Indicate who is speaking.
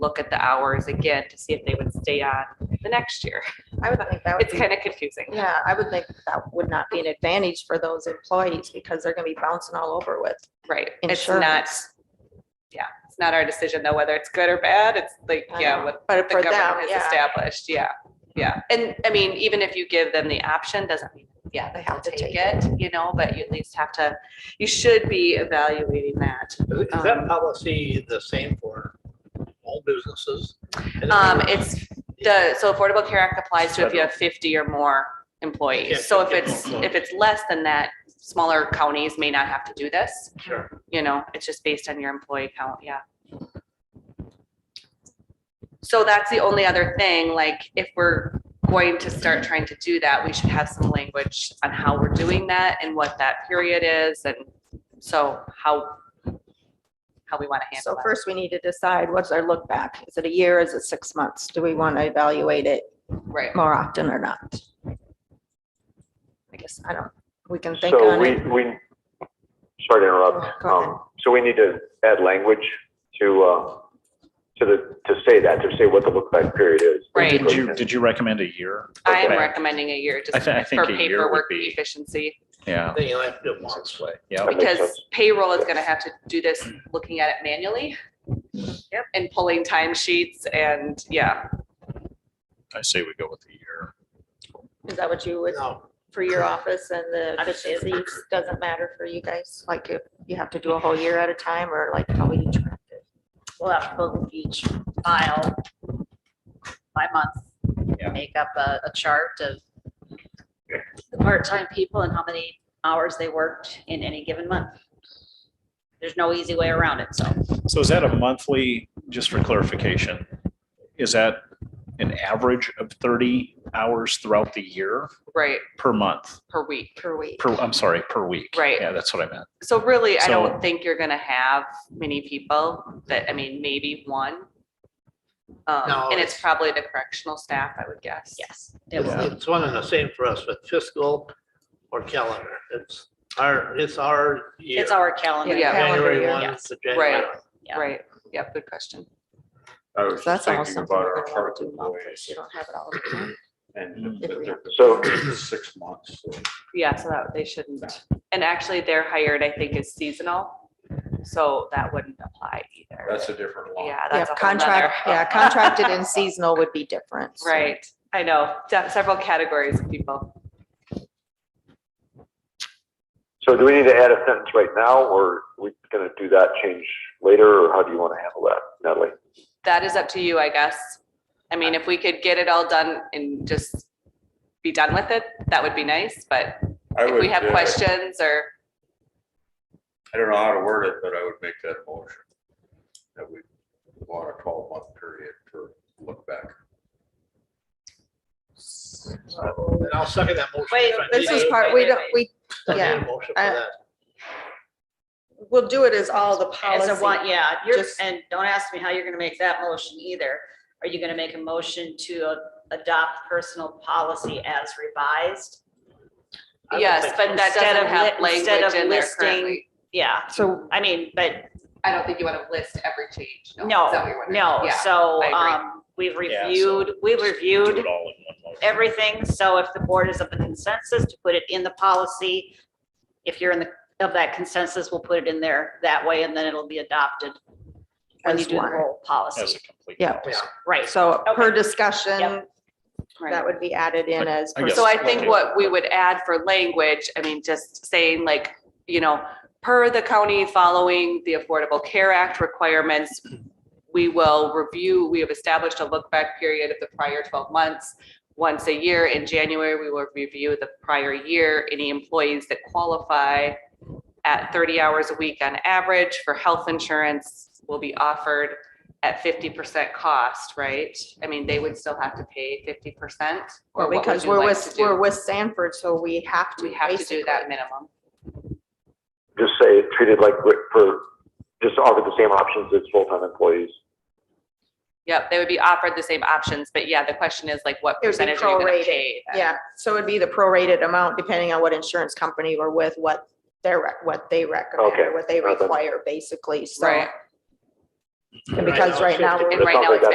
Speaker 1: look at the hours again to see if they would stay on the next year.
Speaker 2: I would think that would
Speaker 1: It's
Speaker 2: be,
Speaker 1: kind of confusing.
Speaker 2: yeah, I would think that would not be an advantage for those employees because they're gonna be bouncing all over with.
Speaker 1: Right, it's not, yeah, it's not our decision though, whether it's good or bad, it's like,
Speaker 2: I
Speaker 1: yeah,
Speaker 2: know.
Speaker 1: what
Speaker 2: um, But
Speaker 1: the
Speaker 2: for them,
Speaker 1: government
Speaker 2: yeah.
Speaker 1: has established, yeah, yeah. And I mean, even if you give them the option, doesn't mean, yeah, they have to take it, you know, but you at least have to, you should be evaluating that.
Speaker 3: Is
Speaker 1: Um,
Speaker 3: that policy the same for all businesses?
Speaker 1: Um, it's the, so Affordable Care Act applies to if you have fifty or more
Speaker 3: Yeah,
Speaker 1: employees. So if
Speaker 3: yeah,
Speaker 1: it's,
Speaker 3: yeah.
Speaker 1: if it's less than that, smaller counties may not have to do this.
Speaker 3: Sure.
Speaker 1: You know, it's just based on your employee count, yeah. So that's the only other thing, like, if we're going to start trying to do that, we should have some language on how we're doing that and what that period is and so how, how we want to handle
Speaker 2: So
Speaker 1: that.
Speaker 2: first we need to decide what's our look back. Is it a year? Is it six months? Do we want to evaluate it
Speaker 1: Right,
Speaker 2: more often or not? I guess, I don't, we can think
Speaker 4: So
Speaker 2: on
Speaker 4: we,
Speaker 2: it. Oh,
Speaker 4: we, sorry to interrupt.
Speaker 2: Go ahead.
Speaker 4: Um, So we need to add language to, uh, to the, to say that, to say what the look back period is.
Speaker 1: right.
Speaker 5: Did you, did you recommend a year?
Speaker 1: I am
Speaker 5: Okay.
Speaker 1: recommending a year
Speaker 5: I
Speaker 1: just
Speaker 5: thi- I think
Speaker 1: for
Speaker 5: a year would
Speaker 1: paperwork
Speaker 5: be-
Speaker 1: efficiency,
Speaker 5: Yeah,
Speaker 3: Then you have to do once.
Speaker 5: yeah.
Speaker 4: That makes
Speaker 1: because
Speaker 4: sense.
Speaker 1: payroll is gonna have to do this, looking at it manually. Yep. And pulling time sheets and, yeah,
Speaker 5: I say we go with a year.
Speaker 2: Is that what you would,
Speaker 3: No,
Speaker 2: for your office and the official leaves, doesn't matter for you guys? Like if you have to do a whole year at a time or like how we track it?
Speaker 6: we'll have to go each file by month,
Speaker 5: Yeah.
Speaker 6: make up a, a chart of the part-time people and how many hours they worked in any given month. There's no easy way around it, so.
Speaker 5: So is that a monthly, just for clarification, is that an average of thirty hours throughout the year
Speaker 1: right,
Speaker 5: per month?
Speaker 1: per week.
Speaker 2: per week?
Speaker 5: Per, I'm sorry, per week?
Speaker 1: Right.
Speaker 5: Yeah, that's what I meant.
Speaker 1: So really, I
Speaker 5: So-
Speaker 1: don't think you're gonna have many people that, I mean, maybe one.
Speaker 3: No,
Speaker 1: Um, and it's
Speaker 3: it's-
Speaker 1: probably the correctional staff, I would guess.
Speaker 6: Yes. it will.
Speaker 3: it's, it's one and the same for us, with fiscal or calendar. It's our, it's our year.
Speaker 6: It's our calendar.
Speaker 1: Yeah.
Speaker 2: Calendar
Speaker 3: January
Speaker 2: year.
Speaker 3: one
Speaker 6: Yes.
Speaker 3: to January.
Speaker 1: Right. Right, yeah, good question.
Speaker 7: I was
Speaker 2: So that's
Speaker 7: just
Speaker 2: almost
Speaker 7: thinking
Speaker 2: something
Speaker 7: Oh, about
Speaker 2: we would
Speaker 7: our
Speaker 2: want
Speaker 7: park
Speaker 2: to do months.
Speaker 7: employees
Speaker 2: You don't have it all the time.
Speaker 7: and
Speaker 2: If we-
Speaker 7: they're
Speaker 4: So-
Speaker 7: six months. so
Speaker 1: Yeah, so that they shouldn't. And actually, they're hired, I think, as seasonal. So that wouldn't apply either.
Speaker 7: That's a different law.
Speaker 1: Yeah,
Speaker 2: Yeah,
Speaker 1: that's a whole nother.
Speaker 2: contract, yeah, contracted and seasonal would be different. so.
Speaker 1: Right, I know, de- several categories of people.
Speaker 4: So do we need to add a sentence right now, or we gonna do that change later, or how do you wanna handle that, Natalie?
Speaker 1: That is up to you, I guess. I mean, if we could get it all done and just be done with it, that would be nice, but
Speaker 7: I
Speaker 1: if we
Speaker 7: would,
Speaker 1: have
Speaker 7: uh,
Speaker 1: questions or,
Speaker 7: I don't know how to word it, but I would make that a motion. That we want a twelve month period for look back.
Speaker 3: And I'll second that motion.
Speaker 6: Wait,
Speaker 3: if I
Speaker 2: This
Speaker 3: need
Speaker 2: is
Speaker 3: to.
Speaker 2: part, we don't, we,
Speaker 3: I need a
Speaker 2: yeah,
Speaker 3: Motion for
Speaker 2: I-
Speaker 3: that.
Speaker 2: we'll do it as all the
Speaker 6: As a one,
Speaker 2: policy.
Speaker 6: yeah, you're,
Speaker 2: Just-
Speaker 6: and don't ask me how you're gonna make that motion either. Are you gonna make a motion to uh, adopt personal policy as revised?
Speaker 3: I would
Speaker 1: yes,
Speaker 3: think
Speaker 1: but that
Speaker 6: Instead
Speaker 1: doesn't
Speaker 6: of
Speaker 1: have
Speaker 6: li- instead
Speaker 1: language
Speaker 6: of
Speaker 1: in there
Speaker 6: listing-
Speaker 1: currently.
Speaker 6: Yeah,
Speaker 2: So
Speaker 6: I mean, but
Speaker 1: I don't think you want to list every change. Is that what you're
Speaker 6: No,
Speaker 1: wondering?
Speaker 6: no,
Speaker 1: Yeah.
Speaker 6: so,
Speaker 1: I agree.
Speaker 6: um, we've
Speaker 5: Yeah, so
Speaker 6: reviewed, we've
Speaker 5: Do
Speaker 6: reviewed
Speaker 5: it all in one motion.
Speaker 6: everything, so if the board is of the consensus to put it in the policy, if you're in the, of that consensus, we'll put it in there that way, and then it'll be adopted when you
Speaker 2: as
Speaker 6: do the
Speaker 2: one,
Speaker 6: whole
Speaker 5: As
Speaker 6: policy,
Speaker 5: a complete.
Speaker 2: Yeah.
Speaker 5: policy.
Speaker 6: right?
Speaker 2: so per
Speaker 6: Okay.
Speaker 2: discussion,
Speaker 6: Yep.
Speaker 1: Right.
Speaker 2: that would be added in as.
Speaker 5: I guess-
Speaker 1: So I
Speaker 5: Yes.
Speaker 1: think what we would add for language, I mean, just saying like, you know, per the county following the Affordable Care Act requirements, we will review, we have established a look back period of the prior twelve months. Once a year in January, we will review the prior year, any employees that qualify at thirty hours a week on average for health insurance will be offered at fifty percent cost, right? I mean, they would still have to pay fifty percent?
Speaker 2: Well, because we're with, we're with Sanford, so we have to.
Speaker 1: We have to do that minimum.
Speaker 4: Just say, treat it like, wi- for, just offer the same options as full-time employees.
Speaker 1: Yep, they would be offered the same options, but yeah, the question is like, what
Speaker 2: It would be
Speaker 1: percentage are you gonna pay?
Speaker 2: prorated, basically.
Speaker 1: then?
Speaker 2: Yeah, so it'd be the prorated amount depending on what insurance company we're with, what they're, what they recommend,
Speaker 4: Okay,
Speaker 2: or what they
Speaker 4: well then.
Speaker 2: require, basically, so.
Speaker 1: Right,
Speaker 8: And because right now we're
Speaker 2: And right now it's